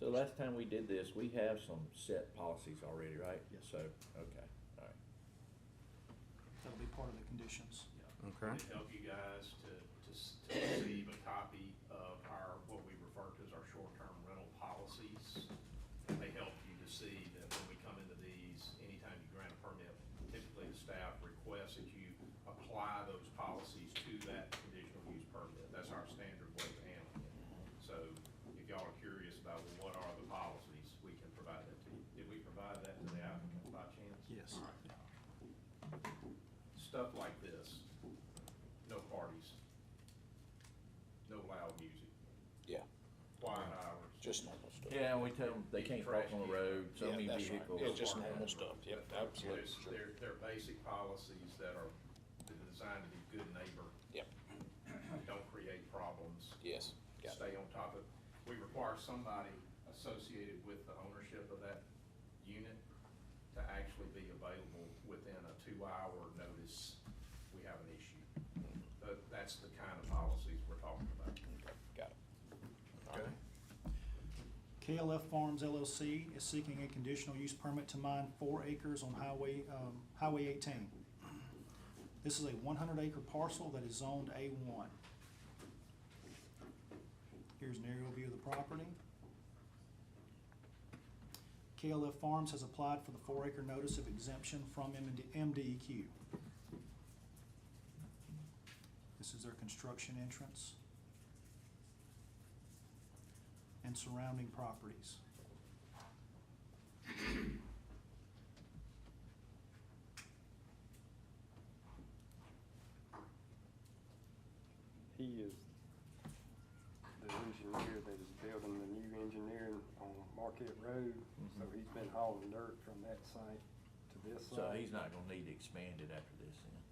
So last time we did this, we have some set policies already, right? Yes. So, okay, all right. That'll be part of the conditions. Okay. To help you guys to, to s- to receive a copy of our, what we refer to as our short-term rental policies. And they help you to see that when we come into these, anytime you grant a permit, typically the staff requests that you apply those policies to that conditional use permit. That's our standard way of handling it. So if y'all are curious about well, what are the policies, we can provide that to you. Did we provide that to the applicant by chance? Yes. All right stuff like this, no parties, no loud music, Yeah, quiet hours. just normal stuff. Yeah, and we tell them they can't park on the road, so Yeah, many that's right. vehicles. Yeah, just normal stuff. Yep, absolutely. There's- Sure. They're, they're basic policies that are designed to be good neighbor, Yep, don't create problems. yes, got it. stay on top of. We require somebody associated with the ownership of that unit to actually be available within a two-hour notice we have an issue. Mm-hmm. But that's the kind of policies we're talking about. Okay, Got it. Okay. KLF Farms LLC is seeking a conditional use permit to mine four acres on Highway, um, Highway 18. This is a 100-acre parcel that is zoned A1. Here's an aerial view of the property. KLF Farms has applied for the four-acre notice of exemption from MD- MDEQ. This is their construction entrance and surrounding properties. He is the engineer that is building the new engineering on Marquette Road, Mm-hmm. so he's been hauling dirt from that site to this site. So he's not gonna need to expand it after this, then?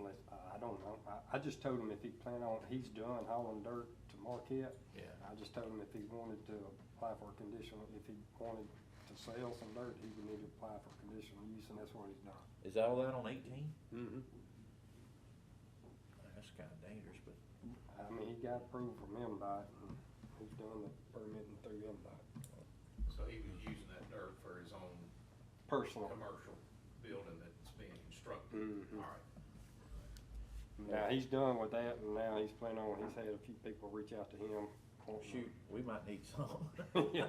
Unless, I I don't know, I, I just told him if he plan on, he's done hauling dirt to Marquette. Yeah. I just told him if he wanted to apply for a conditional, if he wanted to sell some dirt, he would need to apply for conditional use, and that's what he's done. Is that all that on eighteen? Mm-hmm. That's kinda dangerous, but, I mean, he got approved from MDOT, and he's done the permitting through MDOT, So he was using that dirt for his own personal. commercial building that's being constructed. Mhm. All right. Now, he's done with that, and now he's planning on, he's had a few people reach out to him. wanting- shoot, we might need some. Yeah.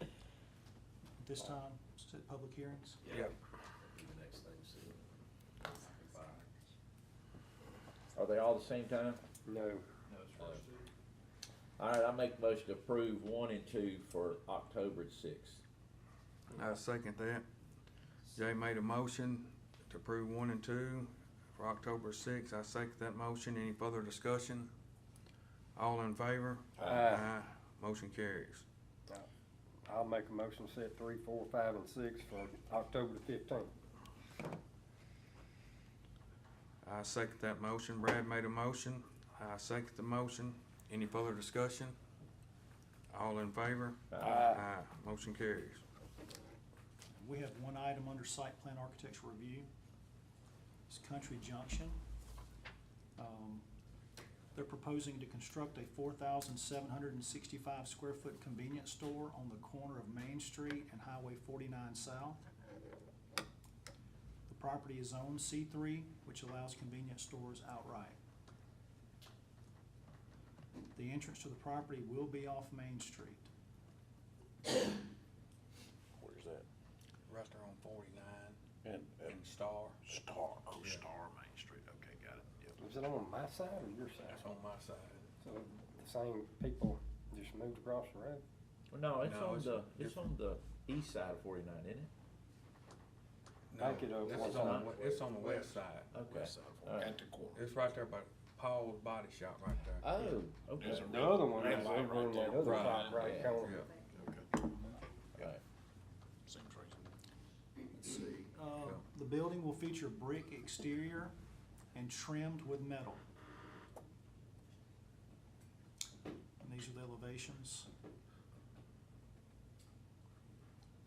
At this time, set public hearings. Yeah. That'd be The next thing, see. Goodbye. Are they all the same time? No, No, it's first. All right, I make a motion to approve one and two for October sixth. I second that. Jay made a motion to approve one and two for October sixth. I second that motion. Any further discussion? All in favor? Aye. Motion carries. Uh, I'll make a motion to set three, four, five, and six for October the fifteenth. I second that motion. Brad made a motion. I second the motion. Any further discussion? All in favor? Aye. Motion carries. We have one item under site plan architectural review. It's Country Junction. Um, They're proposing to construct a 4,765 square foot convenience store on the corner of Main Street and Highway 49 South. The property is owned C3, which allows convenience stores outright. The entrance to the property will be off Main Street. Where's that? Restaurant on forty-nine And, and Star. Star, oh, Yeah. Star Main Street, okay, got it, yep. Is it on my side or your side? That's on my side. So the same people just moved across the road? No, it's No, on it's the, it's on different. the east side of forty-nine, isn't it? No, Back it up. This is on, the- it's on the west side. Okay. West side of- all right. At the corner. It's right there by Paul's Body Shop right there. Oh, okay. There's a All The other one red is light over right on that there. other Right. side, right Yeah. corner. Yeah, Okay, right. seems reasonable. Let's see. Uh, The building will feature brick exterior and trimmed with metal. And these are the elevations.